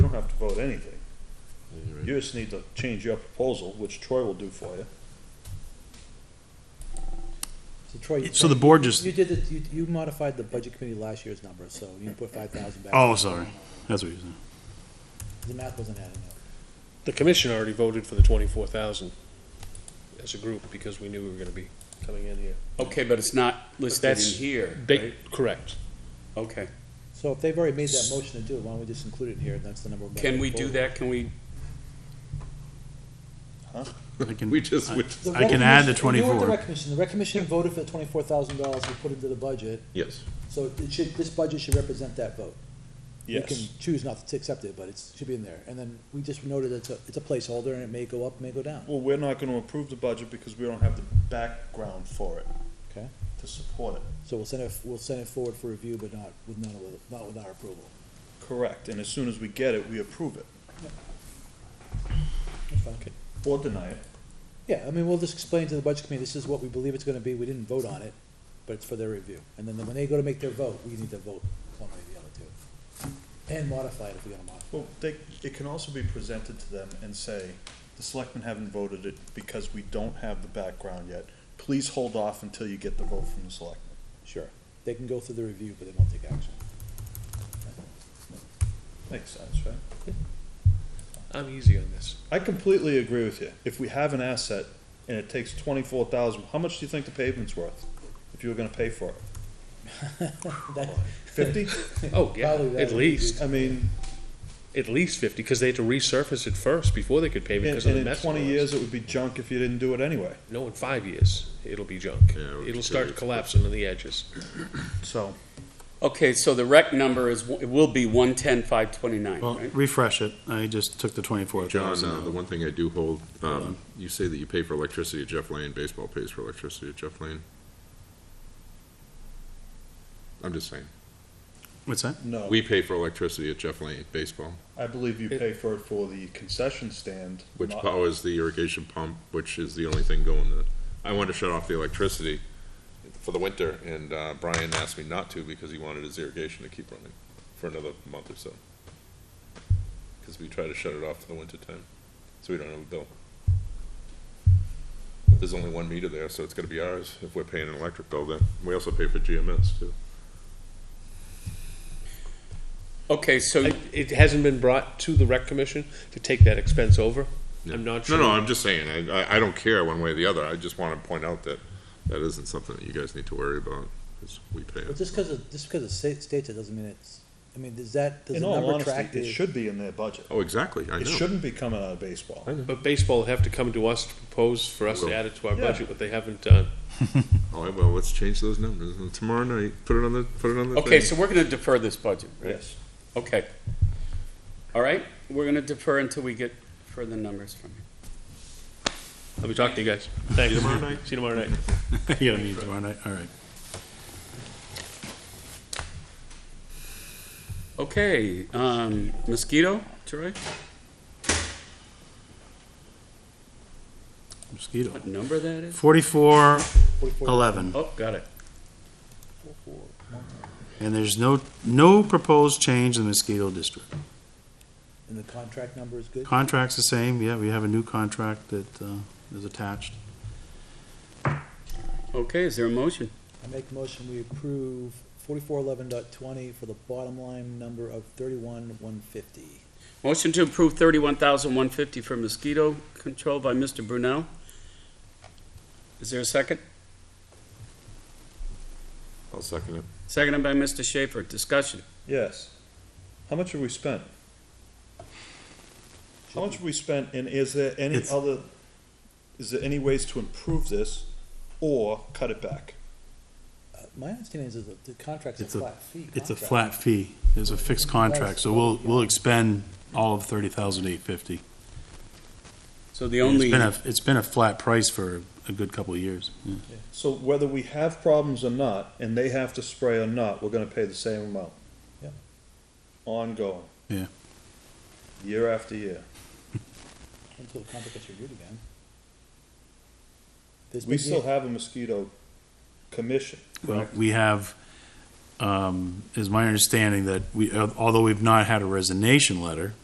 vote anything. You just need to change your proposal, which Troy will do for you. So Troy, you- So the board just, you did, the- you, you modified the budget committee last year's number, so you put five thousand back. oh, sorry, that's what you're saying. The math wasn't adding up. The commission already voted for the twenty-four thousand as a group because we knew we were gonna be coming in here. Okay, but it's not listed in that's- here, They, right? correct. Okay. So if they've already made that motion to do it, why don't we just include it here, and that's the number. we're Can gonna we vote do on. that? Can we, I can- We just, went- The I rec can add the commission- you were at 24. The rec commission, the rec commission voted for the twenty-four thousand dollars we put into the budget, yes, so it should, this budget should represent that vote. You can Yes. choose not to accept it, but it should be in there, and then we just noted it's a, it's a placeholder, and it may go up, may go down. Well, we're not gonna approve the budget because we don't have the background for it. Okay. To support it. So we'll send it, we'll send it forward for review, but not with, not with, not with our approval. Correct, and as soon as we get it, we approve it, That's fine. or deny it. Yeah, I mean, we'll just explain to the budget committee, this is what we believe it's gonna be, we didn't vote on it, but it's for their review. And then when they go to make their vote, we need to vote one way or the other too. And modify it if we're gonna modify. Well, they, it can also be presented to them and say, the selectmen haven't voted it because we don't have the background yet. Please hold off until you get the vote from the selectmen. Sure, they can go through the review, but they won't take action. Makes sense, right? I'm easy on this. I completely agree with you. If we have an asset and it takes twenty-four thousand, how much do you think the pavement's worth? If you were gonna pay for it? That- Fifty? Oh, yeah, Probably that at would least, I mean, at least fifty, because they had to resurface it first before they could pave it and, because of and the in mess. it twenty was. years, it would be junk if you didn't do it anyway, No, in five years, it'll be junk. Yeah, it would be It'll start great. collapsing on the edges. so. okay, so the rec number is, it will be one ten, five twenty-nine, Well, right? refresh it, I just took the twenty-four John, thousand uh, out. the one thing I do hold, um, you say that you pay for electricity at Jeff Lane, baseball pays for electricity at Jeff Lane. I'm just saying, What's that? No, we pay for electricity at Jeff Lane, baseball, I believe you pay for it for the concession stand. which not- powers the irrigation pump, which is the only thing going to, I wanted to shut off the electricity for the winter, and, uh, Brian asked me not to because he wanted his irrigation to keep running for another month or so. Cause we try to shut it off for the winter time, so we don't have a bill. But There's only one meter there, so it's gonna be ours if we're paying an electric bill then. We also pay for GMS too. Okay, so, It, it hasn't been brought to the rec commission to take that expense over. I'm not sure. No, no, I'm just saying, I, I- I don't care one way or the other. I just wanna point out that that isn't something that you guys need to worry about, cause we pay But it. just cause it, just cause it sta- states it doesn't mean it's, I mean, does that, does In the all number track honesty, it the? should be in their budget. Oh, exactly, I know. It shouldn't be coming out of baseball. But baseball will have to come to us to propose for us to Will. add it to our Yeah. budget, but they haven't done. All right, well, let's change those numbers. And Tomorrow night, put it on the, put it on the okay, thing. so we're gonna defer this budget, right? Yes. Okay. All right, we're gonna defer until we get further numbers from you. I'll be talking to you guys. Thanks. See you tomorrow night. See you tomorrow night. You don't need tomorrow night, all right. Okay, um, mosquito, Troy, Mosquito. what number that is? Forty-four, eleven, Oh, got it. and there's no, no proposed change in the mosquito district. And the contract number is good? Contract's the same, yeah, we have a new contract that, uh, is attached. Okay, is there a motion? I make a motion, we approve forty-four eleven dot twenty for the bottom line number of thirty-one one fifty. Motion to approve thirty-one thousand one fifty for mosquito control by Mr. Brunel. Is there a second? I'll second it. Seconded by Mr. Schaefer. Discussion. Yes. How much have we spent? How much have we spent, and is there any It's- other, is there any ways to improve this or cut it back? Uh, My understanding is that the contract's a It's a- flat fee. It's a contract. flat fee, there's a fixed contract, so we'll, we'll expend all of thirty thousand eight fifty. So the It's only, been a, it's been a flat price for a good couple of years. yeah. So whether we have problems or not, and they have to spray or not, we're gonna pay the same amount. Yeah. Ongoing. Yeah. Year after year. Until the contract gets reviewed again. There's We been- still have a mosquito commission. Well, we have, um, is my understanding that we, although we've not had a resignation letter,